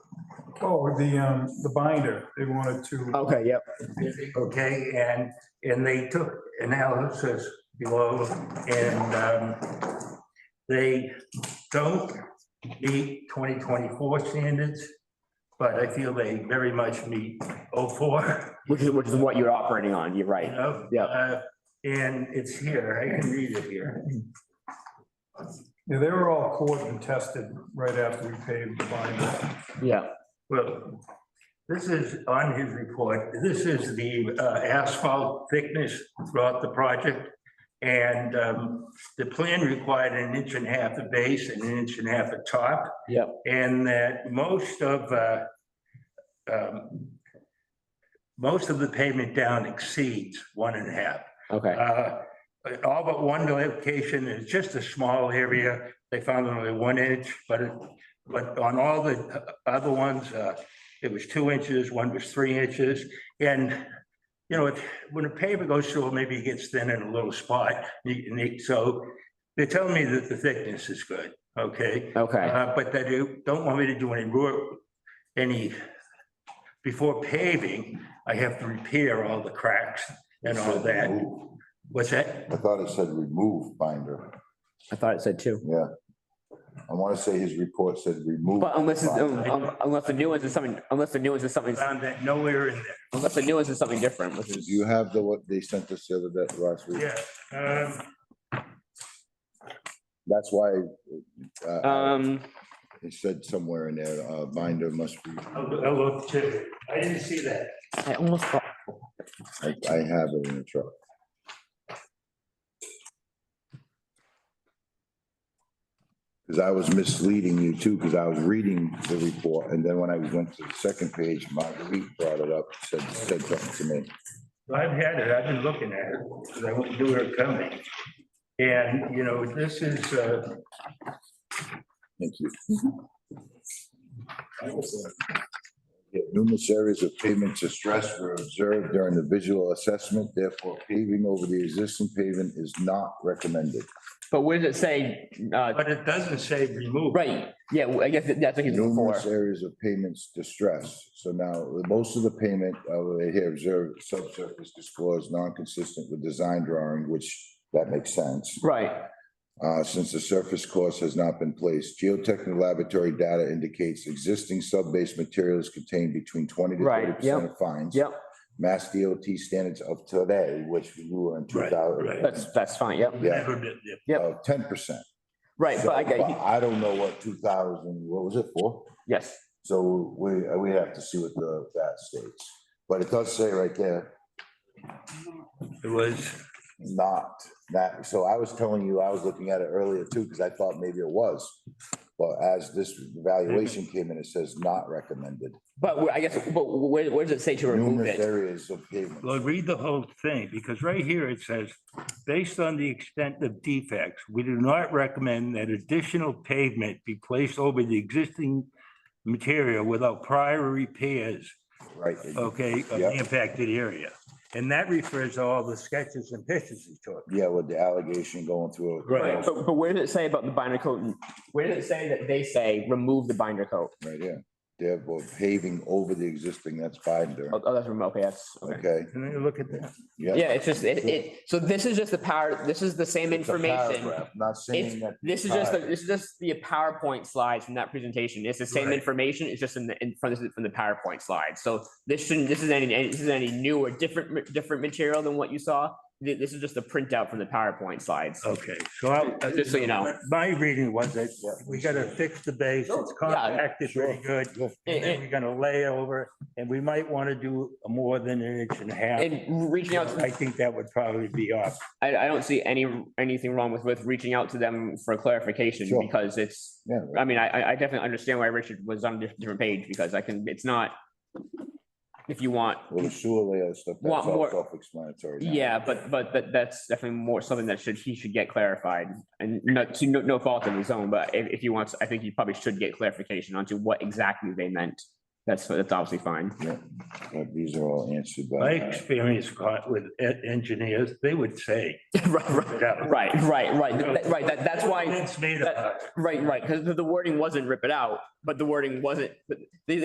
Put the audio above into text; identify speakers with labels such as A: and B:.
A: Oh, the, um, the binder, they wanted to,
B: Okay, yep.
C: Okay, and, and they took analysis below and um, they don't meet 2024 standards, but I feel they very much meet 04,
B: Which is, which is what you're operating on. You're
C: you
B: right.
C: know?
B: Yeah.
C: Uh, And it's here, I can read it here.
A: yeah, they were all cored and tested right after we paved the binder.
B: Yeah.
C: Well, this is on his report. This is the uh, asphalt thickness throughout the project. And um, the plan required an inch and a half of base and an inch and a half of top.
B: Yep.
C: And that most of uh, um, most of the pavement down exceeds one and a half.
B: Okay.
C: Uh, All but one location is just a small area. They found only one inch, but it, but on all the other ones, uh, it was two inches, one was three inches. And, you know, it- when a paver goes through, maybe it gets thin in a little spot. You- and it- So they're telling me that the thickness is good, okay?
B: Okay.
C: Uh, But they do- don't want me to do any work, any, before paving, I have to repair all the cracks and all that. What's that?
D: I thought it said remove binder.
B: I thought it said two.
D: I want to say his report said remove.
B: But unless, it's- um, um, unless the new ones is something, unless the new ones is something,
C: Found that nowhere in
B: unless the new ones is something different, which
D: Do
B: is,
D: you have the, what they sent us the other day, last week?
C: there. Yeah. um,
D: That's why uh,
B: um,
D: it said somewhere in there, uh, binder must be,
C: I'll, I'll look too. I didn't see that.
B: I almost thought,
D: I I have it in the truck. Because I was misleading you too, because I was reading the report, and then when I went to the second page, Marguerite brought it up, said, said something to me.
C: I've had it. I've been looking at it because I wouldn't do it coming. And, you know, this is, uh,
D: Thank you. Yeah, Numerous areas of pavement distress were observed during the visual assessment, therefore paving over the existing pavement is not recommended.
B: but where does it say, uh,
C: but it doesn't say remove.
B: right, yeah, well, I guess that's what he's looking
D: Numerous
B: for.
D: areas of payments distress, so now, most of the payment, uh, here, observed subsurface disclosed non-consistent with design drawing, which that makes sense.
B: Right,
D: Uh, since the surface course has not been placed, geotechnical laboratory data indicates existing sub-base materials contain between twenty to
B: Right,
D: thirty percent of fines.
B: yep,
D: Mass DOT standards of today, which we were in two
C: Right, right.
D: thousand,
B: that's, that's fine, yep,
D: yeah,
C: Never did it.
B: Yep.
D: of ten percent.
B: right, but I, get-
D: I don't know what two thousand, what was it for?
B: yes,
D: So we, we have to see what the, that states, but it does say right there,
C: It was,
D: not that, so I was telling you, I was looking at it earlier too, because I thought maybe it was. But as this valuation came in, it says not recommended,
B: but where- I guess, but where, where does it say to remove
D: numerous
B: it?
D: areas of pavement.
C: well, read the whole thing because right here it says, based on the extent of defects, we do not recommend that additional pavement be placed over the existing material without prior repairs
D: Right,
C: okay, of the
D: Yep.
C: impacted area. And that refers to all the sketches and pictures he took.
D: yeah, with the allegation going through.
C: Right.
B: But, but where does it say about the binder coat? Where does it say that they say remove the binder coat?
D: Right, yeah, they're both paving over the existing, that's binder,
B: Oh, oh, that's remote, okay, that's, okay.
D: okay,
C: And then you look at that.
D: yeah.
B: Yeah, it's just, it, it, so this is just the power, this is the same
D: It's a
B: information.
D: paragraph, Not saying
B: It's,
D: that.
B: this is just, the- this is just the PowerPoint slides from that presentation. It's the same
C: Right.
B: information, it's just in the, in front, this is from the PowerPoint slide. So this shouldn't, this isn't any, any- this isn't any new or different, ma- different material than what you saw. Th- This is just a printout from the PowerPoint slides.
C: Okay, so I.
B: Just so you know.
C: My reading was that we gotta fix the base. It's compacted pretty good. And then we're gonna lay over it, and we might want to do more than an inch and a half.
B: And reaching out, to-
C: I think that would probably be off.
B: I, I don't see any, anything wrong with, with reaching out to them for clarification
D: Sure.
B: because it's,
D: Yeah,
B: I mean, I, I- I definitely understand why Richard was on a diff- different page because I can, it's not, if you want,
D: well, the sewer layout stuff,
B: Uh, Want
D: that's all
B: more-
D: self-explanatory. now.
B: yeah, but, but that, that's definitely more something that should, he should get clarified. And not to, no, no fault of his own, but if, if he wants, I think he probably should get clarification onto what exactly they meant. That's, that's obviously fine.
D: Yeah, but These are all answered
C: My
D: by.
C: experience caught with e- engineers, they would say.
B: Right, right, right, right, right, That- right. That, that's why,
C: It's made up.
B: right, right, because the wording wasn't rip it out, but the wording wasn't, but they,